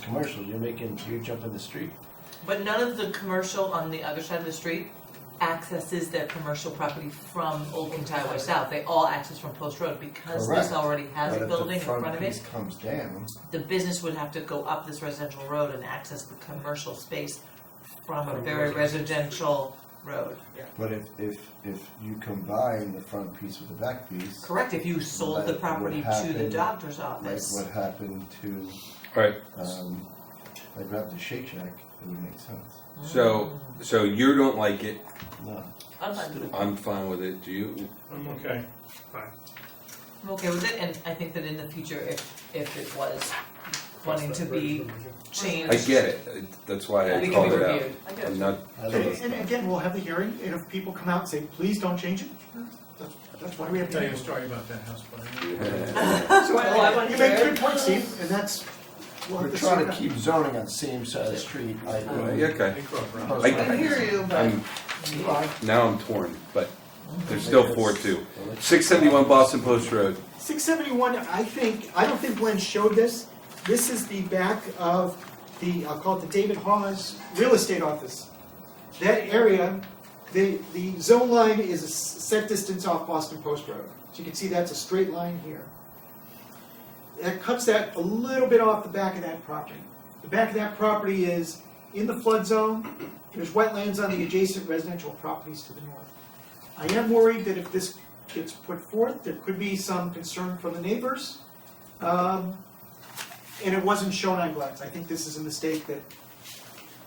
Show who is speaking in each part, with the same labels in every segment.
Speaker 1: commercial, you're making, you're jumping the street.
Speaker 2: But none of the commercial on the other side of the street accesses their commercial property from Old Kings Highway South. They all access from Post Road because this
Speaker 1: Correct.
Speaker 2: already has
Speaker 1: But
Speaker 2: a
Speaker 1: if
Speaker 2: building in front of
Speaker 1: piece
Speaker 2: it.
Speaker 1: Comes down,
Speaker 2: The business would have to go up this residential road and access the commercial space from a
Speaker 3: From
Speaker 2: very
Speaker 3: residential.
Speaker 2: residential road.
Speaker 1: but if, if, if you combine the front piece with the back piece,
Speaker 2: Correct, if you sold
Speaker 1: Like
Speaker 2: the
Speaker 1: what
Speaker 2: property to the
Speaker 1: happened,
Speaker 2: doctor's
Speaker 1: like
Speaker 2: office.
Speaker 1: what happened to,
Speaker 4: Alright,
Speaker 1: um, like what happened to Shake Shack, it would make sense.
Speaker 4: so, so you don't like it,
Speaker 1: No,
Speaker 4: I'm fine with it, do you?
Speaker 3: I'm okay.
Speaker 2: I'm okay with it, and I think that in the future, if, if it was wanting to be changed,
Speaker 4: I get it, that's why I
Speaker 2: we can
Speaker 4: called
Speaker 2: be
Speaker 4: it out.
Speaker 2: reviewed.
Speaker 4: I'm not,
Speaker 1: I
Speaker 3: And,
Speaker 1: don't
Speaker 3: and
Speaker 1: know.
Speaker 3: again, we'll have the hearing, and if people come out and say, please don't change it, that's, that's why we have.
Speaker 5: Tell you a
Speaker 3: to
Speaker 5: story about that house fire.
Speaker 3: So,
Speaker 2: Oh, I wanna
Speaker 3: you make
Speaker 2: hear
Speaker 3: good points, Steve, and that's, we'll have
Speaker 1: We're
Speaker 3: to
Speaker 1: trying
Speaker 3: sort
Speaker 1: to
Speaker 3: out.
Speaker 1: keep zoning on same side of the street, I,
Speaker 4: yeah, okay,
Speaker 5: They grew up around.
Speaker 1: I-
Speaker 2: I hear you, but.
Speaker 4: I'm,
Speaker 1: Right.
Speaker 4: now I'm torn, but there's still four two. Six seventy-one Boston Post Road,
Speaker 3: Six seventy-one, I think, I don't think Glenn showed this, this is the back of the, I'll call it the David Hawes Real Estate Office. That area, the, the zone line is a s- set distance off Boston Post Road, so you can see that's a straight line here. That cuts that a little bit off the back of that property. The back of that property is in the flood zone, there's wetlands on the adjacent residential properties to the north. I am worried that if this gets put forth, there could be some concern from the neighbors. Um, And it wasn't shown on Glenn's, I think this is a mistake that,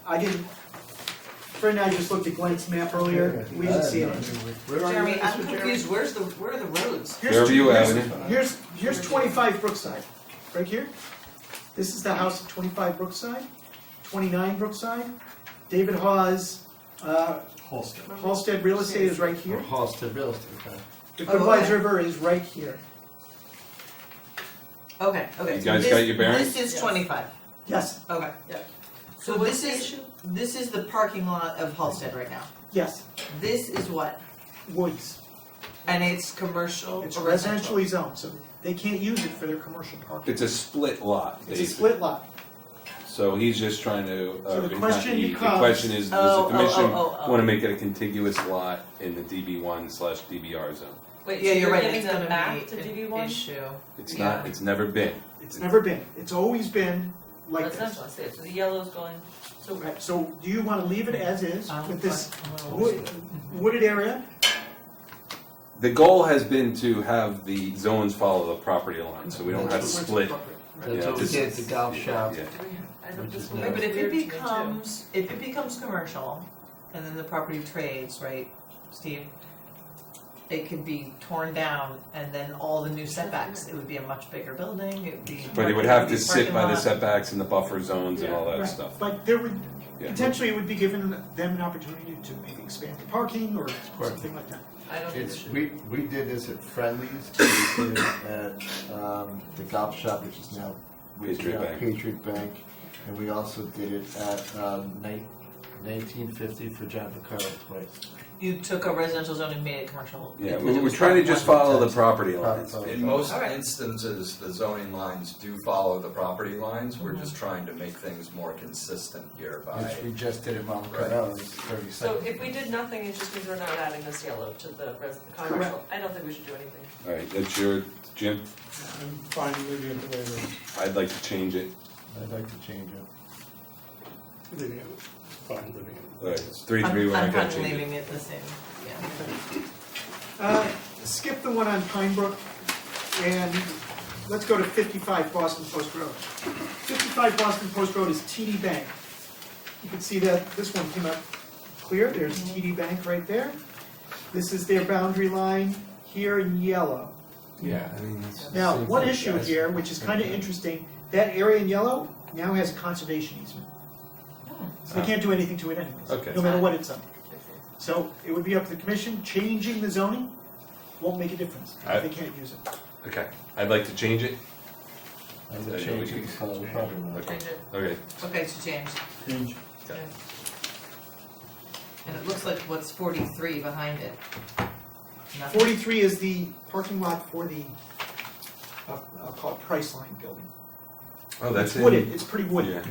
Speaker 3: I didn't, Fred and I just looked at Glenn's map earlier, we didn't see it.
Speaker 5: Where are you
Speaker 2: Jeremy,
Speaker 5: with
Speaker 2: I'm
Speaker 5: this one, Jeremy?
Speaker 2: confused, where's the, where are the roads?
Speaker 3: Here's-
Speaker 4: Fairview
Speaker 3: here's-
Speaker 4: Avenue.
Speaker 3: Here's, here's twenty-five Brookside, right here. This is the house at twenty-five Brookside, twenty-nine Brookside. David Hawes, uh,
Speaker 1: Halsted.
Speaker 3: Halsted Real Estate is right here.
Speaker 1: Halsted Real Estate, okay.
Speaker 3: The
Speaker 2: Oh,
Speaker 3: Goodwise
Speaker 2: okay.
Speaker 3: River is right here.
Speaker 2: Okay, okay.
Speaker 4: You
Speaker 2: so
Speaker 4: guys
Speaker 2: this-
Speaker 4: got your bearings?
Speaker 2: This is
Speaker 6: Yes.
Speaker 2: twenty-five,
Speaker 3: Yes,
Speaker 2: okay.
Speaker 6: Yeah.
Speaker 2: So this is, this is the parking lot of Halsted right now.
Speaker 3: yes,
Speaker 2: This is what?
Speaker 3: Woods.
Speaker 2: And it's commercial
Speaker 3: It's
Speaker 2: or residential?
Speaker 3: residentially zoned, so they can't use it for their commercial parking.
Speaker 4: it's a split lot,
Speaker 3: It's a
Speaker 4: basically.
Speaker 3: split lot.
Speaker 4: So he's just trying to,
Speaker 3: So
Speaker 4: uh,
Speaker 3: the
Speaker 4: not
Speaker 3: question
Speaker 4: he- the
Speaker 3: becomes-
Speaker 4: question is, does
Speaker 2: Oh,
Speaker 4: the
Speaker 2: oh,
Speaker 4: commission
Speaker 2: oh, oh, oh.
Speaker 4: wanna make it a contiguous lot in the DB one slash DBR zone?
Speaker 6: Wait,
Speaker 2: Yeah,
Speaker 6: so
Speaker 2: you're
Speaker 6: you're
Speaker 2: right, it's
Speaker 6: giving them
Speaker 2: gonna
Speaker 6: back to
Speaker 2: be
Speaker 6: DB
Speaker 2: an
Speaker 6: one?
Speaker 2: issue.
Speaker 4: It's not,
Speaker 2: Yeah.
Speaker 4: it's never been.
Speaker 3: It's never been, it's always been like this.
Speaker 6: Residential, I see it. so the yellow's going,
Speaker 3: So, uh, so do you wanna leave it as is
Speaker 2: Um,
Speaker 3: with this
Speaker 2: but-
Speaker 3: wood- wooded area?
Speaker 4: The goal has been to have the zones follow the property line, so we don't have to
Speaker 3: That's what's
Speaker 4: split.
Speaker 3: appropriate.
Speaker 4: Yeah,
Speaker 7: That's what we
Speaker 4: this-
Speaker 7: did at the golf shop.
Speaker 4: yeah.
Speaker 6: I don't,
Speaker 7: Which
Speaker 6: this
Speaker 7: is
Speaker 2: Right, but if it
Speaker 6: weird to me too.
Speaker 2: becomes, if it becomes commercial, and then the property trades, right, Steve? It could be torn down and then all the new setbacks, it would be a much bigger building, it would be.
Speaker 4: But it would have
Speaker 2: be
Speaker 4: to sit
Speaker 2: parking
Speaker 4: by the
Speaker 2: lot.
Speaker 4: setbacks and the buffer zones and all
Speaker 3: Right.
Speaker 4: that stuff.
Speaker 3: But there would,
Speaker 4: Yeah.
Speaker 3: potentially it would be given them an opportunity to maybe expand the parking or something like that.
Speaker 6: I don't think it
Speaker 1: It's,
Speaker 6: should.
Speaker 1: we, we did this at Friendly's, we did it at, um, the golf shop, which is now. which is
Speaker 4: Patriot
Speaker 1: now
Speaker 4: Bank.
Speaker 1: Patriot Bank, and we also did it at, um, nineteen fifty for John Picaro twice.
Speaker 2: You took a residential zone and made it commercial.
Speaker 4: Yeah,
Speaker 2: because
Speaker 4: we-
Speaker 2: it
Speaker 4: we're
Speaker 2: was
Speaker 4: trying to
Speaker 2: one-
Speaker 4: just follow the
Speaker 1: text.
Speaker 4: property lines.
Speaker 1: Property.
Speaker 8: In most
Speaker 2: Alright.
Speaker 8: instances, the zoning lines do follow the property lines, we're just trying to make things more consistent here by.
Speaker 1: Which we just did at Mount
Speaker 8: Right.
Speaker 1: Carrera's thirty
Speaker 6: So
Speaker 1: seconds.
Speaker 6: if we did nothing, it's just because we're not adding this yellow to the res, commercial, I don't think we should do anything.
Speaker 4: All right, that's your, Jim,
Speaker 3: I'm fine leaving it the way it is.
Speaker 4: I'd like to change it.
Speaker 1: I'd like to change it.
Speaker 5: Living it, fine living it.
Speaker 4: All right, it's three,
Speaker 2: I'm-
Speaker 4: three, one,
Speaker 2: I'm
Speaker 4: I
Speaker 2: kind
Speaker 4: gotta
Speaker 2: of
Speaker 4: change it.
Speaker 2: leaving it the same, yeah.
Speaker 3: Uh, Skip the one on Pine Brook, and let's go to 55 Boston Post Road. 55 Boston Post Road is TD Bank. You can see that this one came up clear, there's TD Bank right there. This is their boundary line here in yellow.
Speaker 1: Yeah, I mean, it's.
Speaker 3: Now, one issue here, which is kind of interesting, that area in yellow now has a conservation easement. So they can't do anything to it anyways,
Speaker 4: Ah. Okay.
Speaker 3: no matter what it's on. So it would be up to the commission, changing the zoning won't make a difference, if they can't use it.
Speaker 4: Okay, I'd like to change it.
Speaker 1: I'm gonna change it to follow the property line.
Speaker 6: Change it.
Speaker 4: Okay,
Speaker 2: Okay, so James,
Speaker 5: Change.
Speaker 2: and it looks like what's forty-three behind it. Nothing.
Speaker 3: Forty-three is the parking lot for the, uh, I'll call it Priceline Building.
Speaker 4: oh, that's
Speaker 3: It's
Speaker 4: in.
Speaker 3: Oh, wooded, it's pretty wooded.
Speaker 4: Yeah.